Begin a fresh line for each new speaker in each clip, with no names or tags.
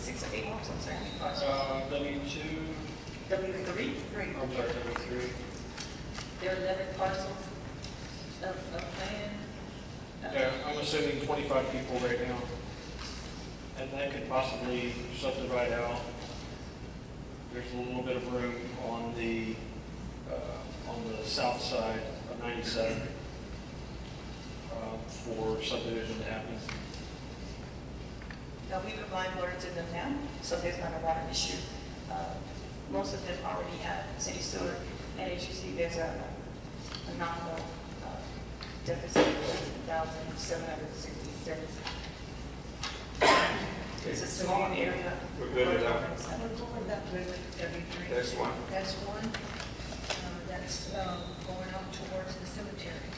State Works and Safety Project.
Uh, W two,
W three? Three.
I'm sorry, W three.
There are eleven parcels of, of land. Uh,
Yeah, I'm assuming twenty-five people right now. And that could possibly subdivide out. There's a little bit of room on the, uh, on the south side of ninety-seven um, for subdivision to happen.
Now, we've applied water to them now, so there's not a water issue. Uh, Most of them already have city sewer, and as you see, there's a a nominal uh, deficit of thirteen thousand seven hundred sixty-six. It's a small area.
We're good with that.
We're going that way with every three.
That's one.
That's one, uh, that's um, going up towards the cemetery.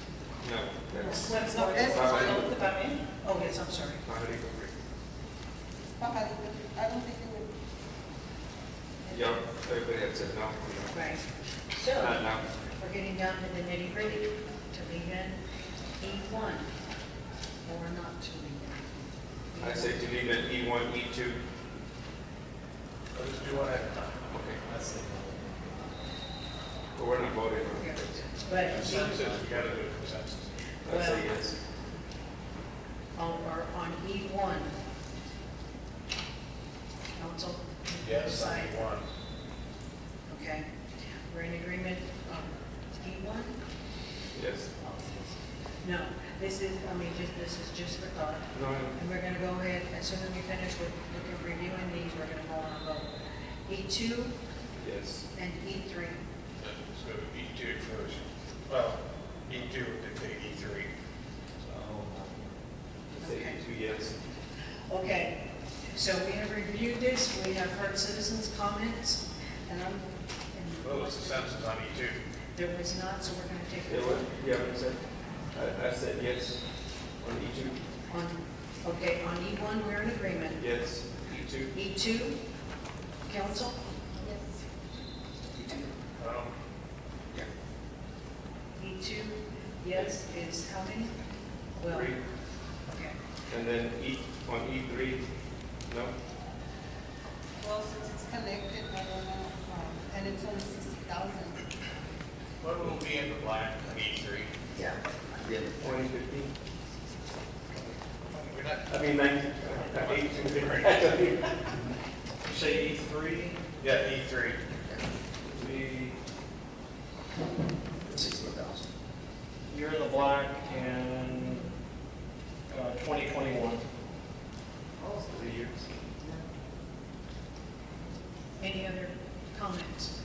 No, that's
Well, it's not- that's-
Right.
if I may. Oh, yes, I'm sorry.
Pahari Kukri.
Somebody would- I don't think it would.
Yeah, everybody had said no, no.
Right. So.
Not now.
We're getting down to the nitty gritty, to begin E one, or not to begin.
I say delete an E one, E two.
I'll just do one at a time.
Okay,
That's it.
but we're not voting on it.
But, E-
Consensus, we gotta do a consensus.
I say yes.
on, or on E one. Council?
Yes, I
Side,
need one.
okay. We're in agreement on E one?
Yes.
No, this is, I mean, just, this is just for thought.
No, no.
And we're gonna go ahead, as soon as we finish with, looking reviewing these, we're gonna go on a vote. E two
yes.
and E three.
So E two first. Well, E two would be E three. So
I Say E two, yes.
Okay, so we have reviewed this, we have heard citizens' comments, and I'm,
Well,
and
it's consensus on E two.
there was not, so we're gonna
Yeah,
take
what,
it
yeah, I said, I, I said yes on E two,
on, okay, on E one, we're in agreement.
yes, E two,
E two, council?
Um,
E two, yes, is how many? Well,
three,
okay.
and then E, on E three, no?
Well, since it's connected, I don't know, um, and it's only sixty thousand.
What will be in the black on E three?
Yeah. Yeah. Twenty fifteen,
We're not,
I mean nineteen,
You
eighteen.
say E three, E
yeah, E three.
the. You're in the black in, uh, twenty twenty-one.
Three years.
Any other comments?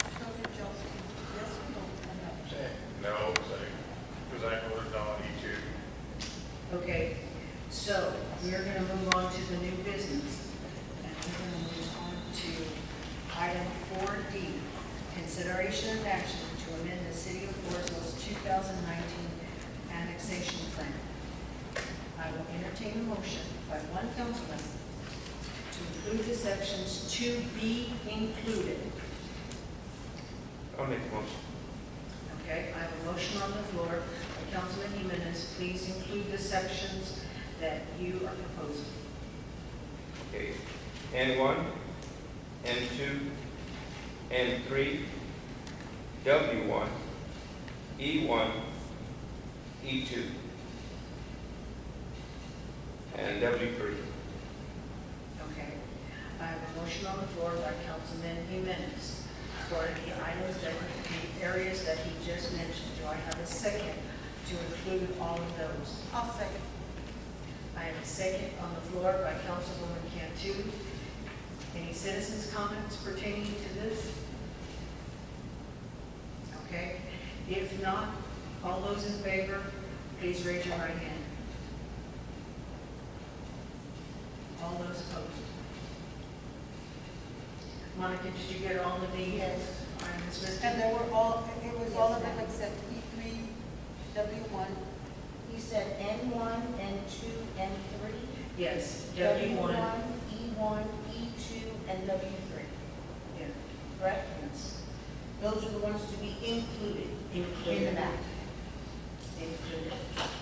Trustee Johnson, yes or no? on that?
No, say, because I voted on E two.
Okay, so we're gonna move on to the new business. And we're gonna move on to item four D, consideration and action to amend the city of Floresville's two thousand nineteen annexation plan. I will entertain a motion by one councilman to include the sections to be included.
I'll make a motion.
Okay, I have a motion on the floor. Councilman Jimenez, please include the sections that you are proposing.
Okay, N one, N two, N three, W one, E one, E two, and W three.
Okay. I have a motion on the floor by Councilman Jimenez for the items that, the areas that he just mentioned. Do I have a second to include all of those?
I'll second.
I have a second on the floor by Councilwoman Cantu. Any citizens' comments pertaining to this? Okay. If not, all those in favor, please raise your right hand. All those opposed? Monica, did you get all of the?
Yes.
All right, Ms. Miskowski?
And they were all, it was all of them except E three, W one.
You said N one, N two, N three?
Yes, W one.
E one, E two, and W three,
Yeah,
correct? Those are the ones to be included in the
Included.
map.
Included.